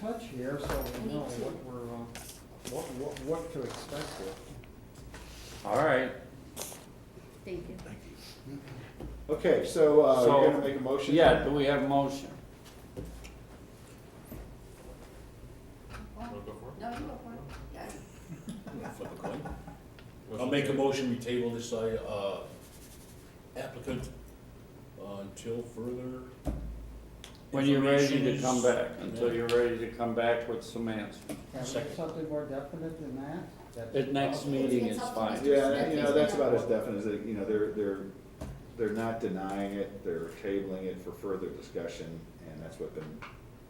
touch here, so we Me know too. what we're, um, what, what, what to expect here. All right, Thank you. Okay, so, uh, So- you're gonna make a motion? yeah, do we have a motion? No, you go for it. Yes. I'll make a motion, we table this, uh, applicant uh, until further. When you're ready to information come is- back, until you're ready to come back with some answers. Have we Second. something more definite than that? That's- At next meeting is fine. Yeah, and, you know, that's about as definite as, it- you know, they're, they're, they're not denying it, they're tabling it for further discussion, and that's what been,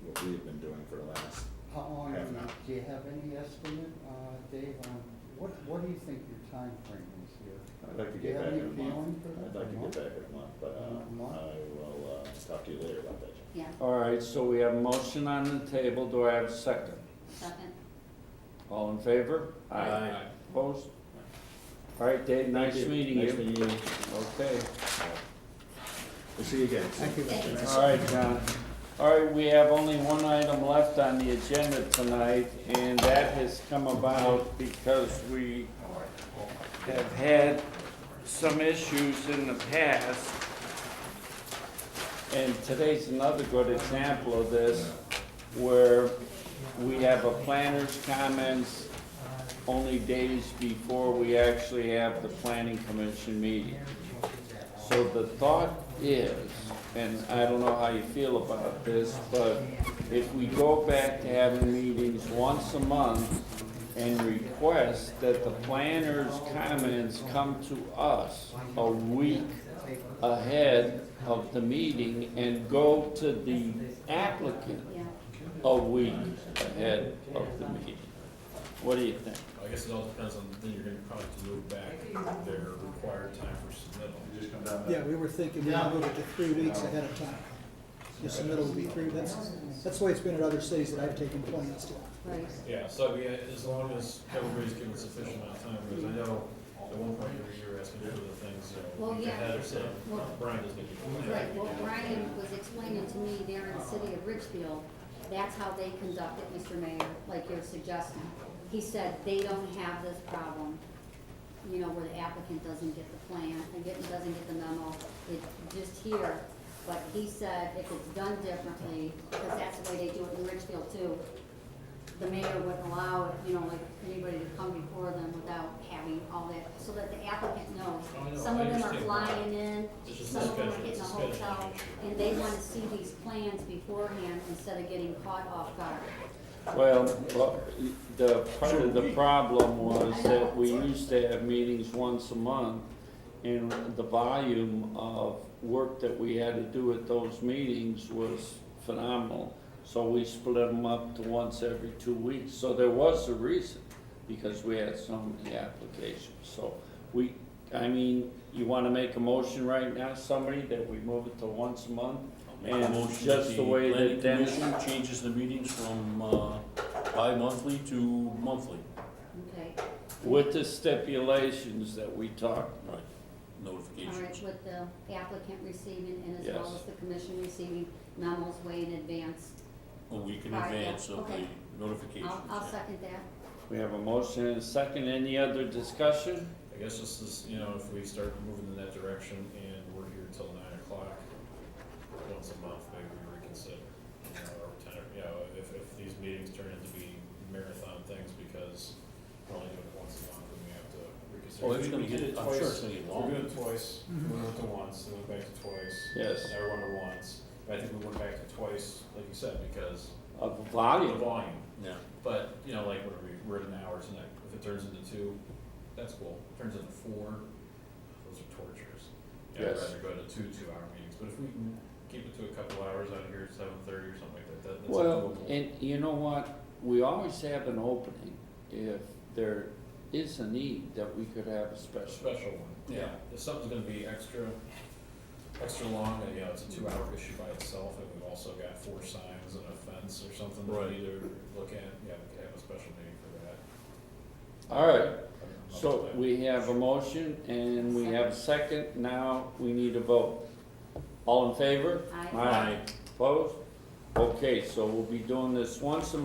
what we've been doing for the last. How long, Half an hour. do you have any estimate, uh, Dave, on, what, what do you think your time frame is here? I'd like to Do you get have back any in a feeling month. for that? I'd like to get back in a month, but, uh, A month? I will, uh, talk to you later about that. Jim. Yeah, All right, so we have a motion on the table, do I have a second? second. All in favor? Aye. Opposed? All right, Dave, next Thank you. meeting Next you, meeting. okay. We'll see you again. Thank you. Thank you. All right, John. All right, we have only one item left on the agenda tonight, and that has come about because we have had some issues in the past. And today's another good example of this, where we have a planner's comments only days before we actually have the planning commission meeting. So the thought is, and I don't know how you feel about this, but if we go back to having meetings once a month and request that the planner's comments come to us a week ahead of the meeting and go to the applicant Yeah, a week ahead of the meeting. What do you think? I guess it all depends on, then you're gonna probably have to move back their required time for submittal. Just come down Yeah, we were thinking, we moved it to three weeks ahead of time. Just the middle would be three, that's, that's the way it's been at other cities that I've taken plans to. right. Yeah, so I mean, as long as everybody's given sufficient amount of time, because I know at one point every year asking for the things, so. Well, we yeah. had it, so Well- Brian doesn't get it. Right, well, Brian was explaining to me there in the city of Richfield, that's how they conduct it, Mr. Mayor, like you're suggesting. He said they don't have this problem, you know, where the applicant doesn't get the plan, and get, doesn't get the memo, it's just here. But he said if it's done differently, because that's the way they do it in Richfield too, the mayor wouldn't allow, it, you know, like anybody to come before them without having all that, so that the applicant Oh, I know, knows. Some I of them are understand. flying in, It's just some of them are schedule, getting a it's schedule hotel, issue. and they wanna see these plans beforehand instead of getting caught off guard. Well, well, the, part of the problem was that we used to have meetings once a month, and the volume of work that we had to do at those meetings was phenomenal. So we split them up to once every two weeks, so there was a reason, because we had so many applications. So we, I mean, you wanna make a motion right now, somebody, that we move it to once a month? I'll make a And motion just that the way that planning Dennis- commission Changes the meetings from, uh, bi-monthly to monthly. Okay, With the stipulations that we talked Right. all right, Notifications. with the applicant receiving and as well Yes. as the commission receiving memos way in advance. A week in All right, yeah, advance of the okay. notifications. I'll, I'll yeah. second that. We have a motion and a second. Any other discussion? I guess this is, you know, if we start moving in that direction and we're here until nine o'clock, once a month, maybe we reconsider. you know, Or ten, you know, if, if these meetings turn into be marathon things because we're only doing it once a month, then we have to reconsider. Oh, it's We- gonna we did get, it I'm sure twice. it's gonna get We long. longer. did it twice, we went to once, then went back to twice. Yes. Now we're going to once, but I think we went back to twice, like you said, because Of of the volume? volume. Yeah. But, you know, like, what are we, we're at an hour tonight, if it turns into two, that's cool, If it turns into four, those are tortures. Yeah, I'd Yes. rather go to two two-hour meetings, but if we can keep it to a couple hours out here at seven thirty or something like that, that, that's Well, doable. and you know what? We always have an opening if there is a need that we could have a A special. special one, yeah, Yeah. if something's gonna be extra, extra long, and, you know, it's a two-hour issue by itself, and we've also got four signs and a fence or something that Right. we either look at, yeah, we could have a special meeting for that. All right, I don't know. so we have a motion and we have a second. Now we need a vote. All in favor? Aye. Opposed? Okay, so we'll be doing this once a